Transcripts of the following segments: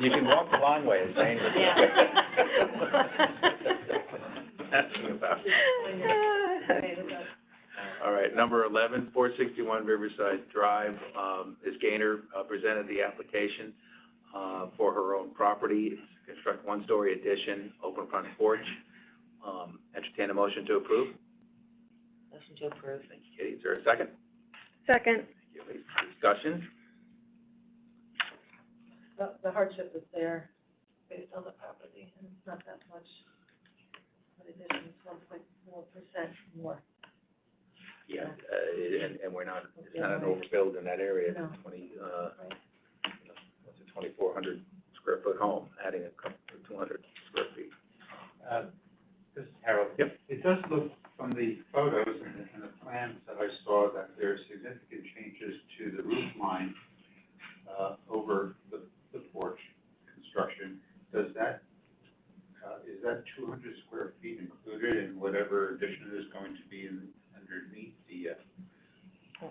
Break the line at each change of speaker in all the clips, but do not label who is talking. You can walk the long way, it's dangerous.
Asking about it. All right, number eleven, four sixty-one Riverside Drive, um, Ms. Gaynor uh, presented the application, uh, for her own property. It's to Construct one-story addition, open front porch. Um, entertain a motion to approve.
Motion to approve.
Thank you, Katie. Is there a second?
Second.
Thank you, Elise. Discussion?
The, the hardship is there based on the property, and it's not that much. But addition is one point four percent more.
Yeah, uh, and, and we're not, it's not an overbuild in that area, it's a twenty, uh, it's a twenty-four hundred square foot home, adding a couple, two hundred square feet.
Uh, This is Harold.
Yep.
It does look from the photos and the, and the plans that I saw that there are significant changes to the roof line, uh, over the, the porch construction. Does that, uh, is that two hundred square feet included in whatever addition is going to be in, underneath the, uh,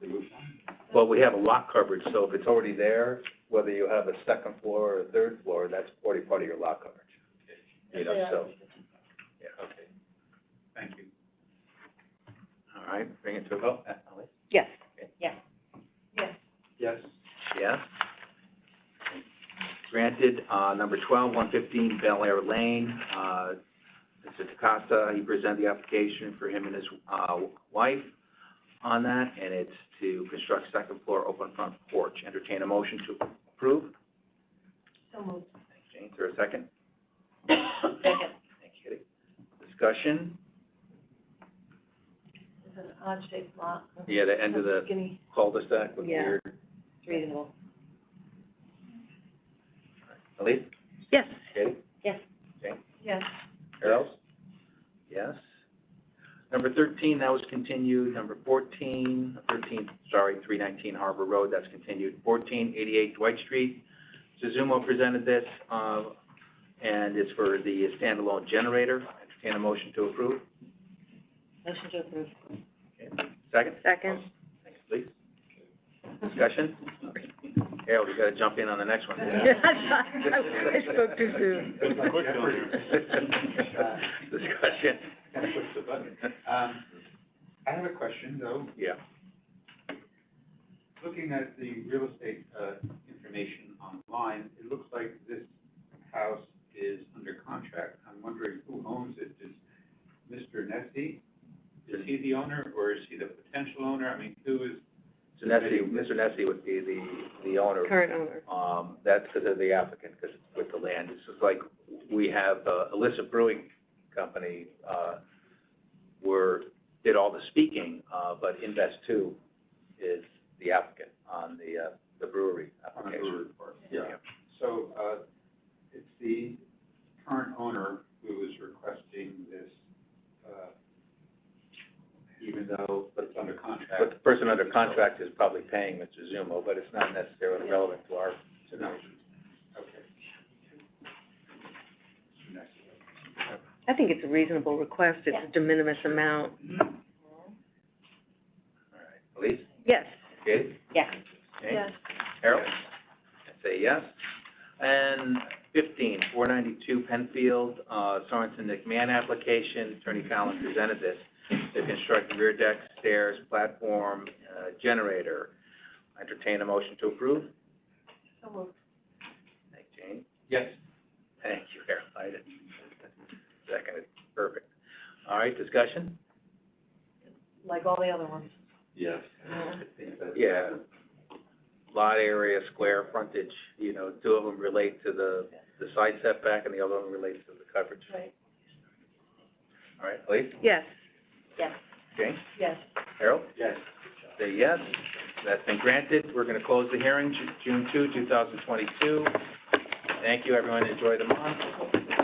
the roof line?
Well, we have a lot coverage, so if it's already there, whether you have a second floor or a third floor, that's already part of your lot coverage. You know, so, yeah, okay.
Thank you.
All right, bring it to a vote. Uh, Ellie?
Yes.
Yes.
Yes. Granted, uh, number twelve, one fifteen Bel Air Lane, uh, Mr. Takasa, he presented the application for him and his, uh, wife on that, and it's to construct second floor open front porch. Entertain a motion to approve.
So moved.
Jane, is there a second?
Second.
Thank you, Kitty. Discussion?
It's an odd shaped lot.
Yeah, the end of the
Skinny,
cul-de-sac with
Yeah.
weird,
it's reasonable.
Elise,
Yes.
Kitty,
Yes.
Harold? Yes. Number thirteen, that was continued. Number fourteen, thirteen, sorry, three nineteen Harbor Road, that's continued. Fourteen eighty-eight Dwight Street, Suzumo presented this, uh, and it's for the standalone generator. Entertain a motion to approve.
Motion to approve.
Second?
Second.
Thanks, Elise. Discussion? Harold, you gotta jump in on the next one.
I spoke too soon.
It was like
Quick
Jeffrey. Uh,
Discussion.
Gotta push the button. Um, I have a question though.
Yeah.
looking at the real estate, uh, information online, it looks like this house is under contract. I'm wondering who owns it? Is Mr. Nessie, is he the owner or is he the potential owner? I mean, who is?
So Nessie, Mr. Nessie would be the, the owner.
Current owner.
Um, that's because of the applicant, because with the land, it's just like, we have, uh, Alyssa Brewing Company, uh, were, did all the speaking, uh, but Invest Two is the applicant on the, uh, the brewery
on the
application.
brewery part? So, uh, it's the current owner who is requesting this, uh, even though it's under
But
contract
the person under contract is probably paying Mr. Zumo, but it's not necessarily relevant to our
to know. Okay. Mr. Nessie.
I think it's a reasonable request. It's a de minimis amount.
All right, Elise,
Yes.
Katie,
Yes.
Jane?
Yes.
Harold? I say yes. And fifteen, four ninety-two Penfield, uh, Sorensen McMahon application, Attorney Fallon presented this. To construct rear deck, stairs, platform, uh, generator. Entertain a motion to approve.
So moved.
Thank you, Jane.
Yes.
Thank you, Harold. I didn't, seconded, perfect. All right, discussion?
Like all the other ones.
Yes.
Yeah. Lot area, square, frontage, you know, two of them relate to the, the side setback and the other one relates to the coverage.
Right.
All right, Elise,
Yes.
Yes.
Jane,
Yes.
Harold?
Yes.
Say yes, that's been granted. We're gonna close the hearing, Ju- June two, two thousand twenty-two. Thank you, everyone, enjoy the month.